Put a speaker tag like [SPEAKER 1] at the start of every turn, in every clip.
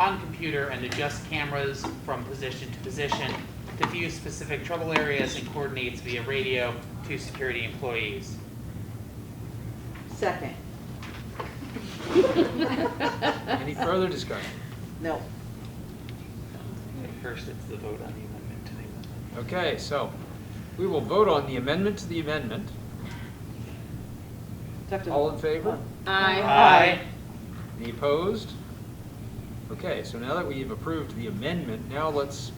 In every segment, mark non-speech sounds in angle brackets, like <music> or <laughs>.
[SPEAKER 1] on computer and adjust cameras from position to position to view specific trouble areas and coordinates via radio to security employees.
[SPEAKER 2] Second,
[SPEAKER 3] Any further discussion?
[SPEAKER 2] <laughs> no,
[SPEAKER 1] First, it's the vote on the amendment to the amendment.
[SPEAKER 3] Okay, so we will vote on the amendment to the amendment. All in favor?
[SPEAKER 1] Aye.
[SPEAKER 3] Any opposed? Okay, so now that we've approved the amendment, now let's,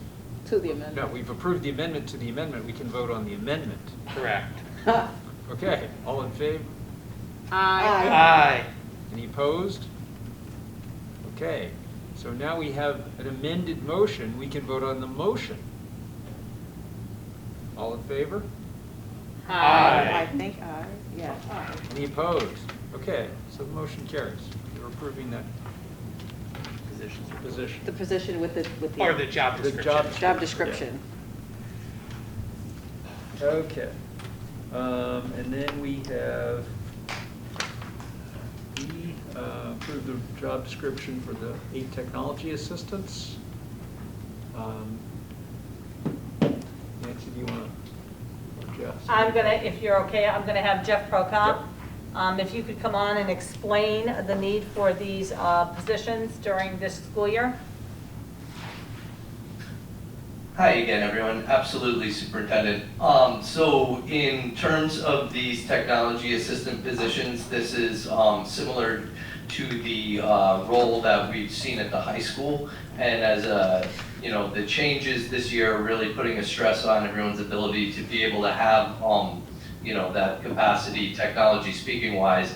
[SPEAKER 2] to the
[SPEAKER 3] no,
[SPEAKER 2] amendment.
[SPEAKER 3] we've approved the amendment to the amendment, we can vote on the amendment.
[SPEAKER 1] Correct.
[SPEAKER 2] <laughs>
[SPEAKER 3] Okay, all in favor?
[SPEAKER 2] Aye.
[SPEAKER 1] Aye.
[SPEAKER 3] Any opposed? Okay, so now we have an amended motion, we can vote on the motion. All in favor?
[SPEAKER 2] I think aye, yeah, aye.
[SPEAKER 3] Any opposed? Okay, so the motion carries. You're approving that
[SPEAKER 1] Positions.
[SPEAKER 3] position.
[SPEAKER 2] The position with the, with
[SPEAKER 1] Or the
[SPEAKER 2] the
[SPEAKER 1] job
[SPEAKER 3] The
[SPEAKER 1] description.
[SPEAKER 3] job-
[SPEAKER 2] job description.
[SPEAKER 3] Okay. Um, And then we have, we uh, approved the job description for the eight technology assistants. Um, Nancy, do you want to, Jeff?
[SPEAKER 4] I'm gonna, if you're okay, I'm gonna have
[SPEAKER 3] Yep.
[SPEAKER 4] Jeff Prokop. Um, if you could come on and explain the need for these, uh, positions during this school year.
[SPEAKER 5] Hi again, everyone. Absolutely, Superintendent. Um, so in terms of these technology assistant positions, this is, um, similar to the, uh, role that we've seen at the high school. And as a, you know, the changes this year are really putting a stress on everyone's ability to be able to have, um, you know, that capacity, technology speaking wise.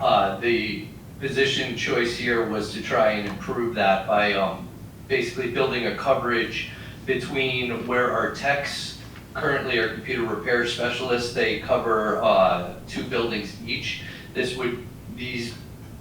[SPEAKER 5] Uh, the position choice here was to try and improve that by, um, basically building a coverage between where our techs currently are computer repair specialists, they cover uh, two buildings each. This would, these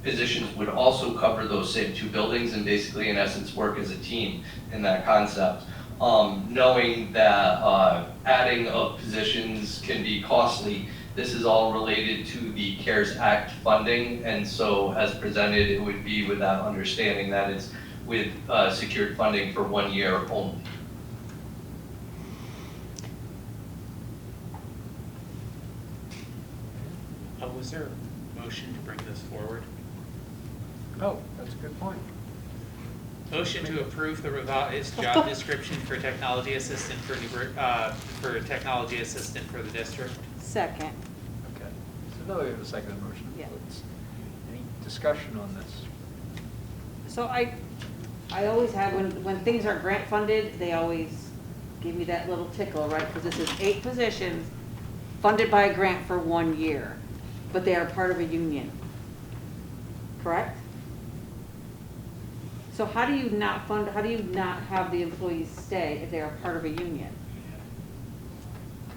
[SPEAKER 5] positions would also cover those same two buildings and basically in essence work as a team in that concept. Um, Knowing that uh, adding of positions can be costly, this is all related to the CARES Act funding. And so as presented, it would be with that understanding that it's with uh, secured funding for one year only.
[SPEAKER 1] Uh, Was there a motion to bring this forward?
[SPEAKER 3] Oh, that's a good point.
[SPEAKER 1] Motion to approve the revised job description for technology assistant for Newburgh, uh, for technology assistant for the district.
[SPEAKER 2] Second,
[SPEAKER 3] Okay. So now we have a second motion.
[SPEAKER 2] Yeah.
[SPEAKER 3] Let's- Any discussion on this?
[SPEAKER 2] so I, I always have, when, when things are grant funded, they always give me that little tickle, right? Because this is eight positions funded by a grant for one year, but they are part of a union, correct? So how do you not fund, how do you not have the employees stay if they are part of a union?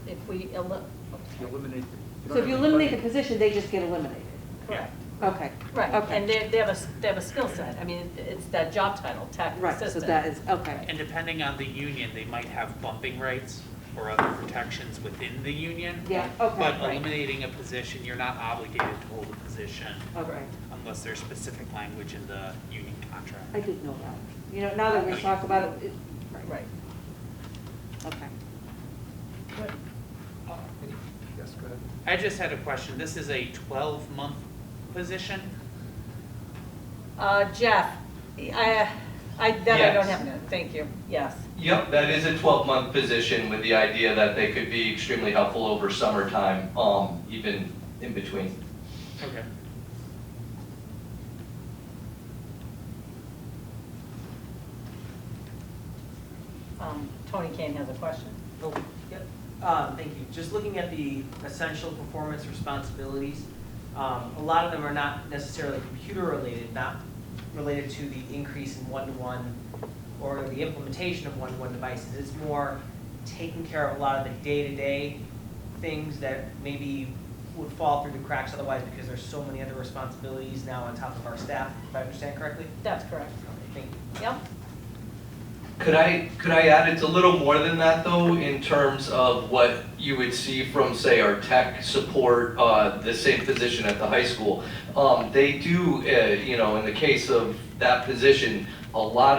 [SPEAKER 4] If we, el-
[SPEAKER 3] If you eliminate.
[SPEAKER 2] So if you eliminate the position, they just get eliminated?
[SPEAKER 4] correct.
[SPEAKER 2] Okay.
[SPEAKER 4] Right, and
[SPEAKER 2] Okay.
[SPEAKER 4] they, they have a, s- they have a skill set. I mean, it's that job title, tech assistant.
[SPEAKER 2] Right, so that is, okay,
[SPEAKER 1] And depending on the union, they might have bumping rights or other protections within the union.
[SPEAKER 2] Yeah, okay,
[SPEAKER 1] But
[SPEAKER 2] right.
[SPEAKER 1] eliminating a position, you're not obligated to hold a position
[SPEAKER 2] okay.
[SPEAKER 1] unless there's specific language in the union
[SPEAKER 2] I
[SPEAKER 1] contract.
[SPEAKER 2] didn't know that. You know, now that we talk about it, it,
[SPEAKER 4] Right.
[SPEAKER 2] okay.
[SPEAKER 3] Yes, go ahead.
[SPEAKER 1] I just had a question. This is a 12-month position?
[SPEAKER 4] Uh, Jeff, I, I, that I don't
[SPEAKER 5] Yes.
[SPEAKER 4] have, no, thank you, yes.
[SPEAKER 5] Yep, that is a 12-month position with the idea that they could be extremely helpful over summertime, um, even in between.
[SPEAKER 1] Okay.
[SPEAKER 4] Um, Tony Kane has a question.
[SPEAKER 6] Oh, Yep, uh, thank you. Just looking at the essential performance responsibilities, um, a lot of them are not necessarily computer related, not related to the increase in one-to-one or the implementation of one-to-one devices. It's more taking care of a lot of the day-to-day things that maybe would fall through the cracks otherwise because there's so many other responsibilities now on top of our staff, if I understand correctly?
[SPEAKER 4] That's correct.
[SPEAKER 6] Okay, Thank you.
[SPEAKER 4] Yep,
[SPEAKER 5] Could I, could I add, it's a little more than that though, in terms of what you would see from, say, our tech support, uh, the same position at the high school. Um, they do, uh, you know, in the case of that position, a lot of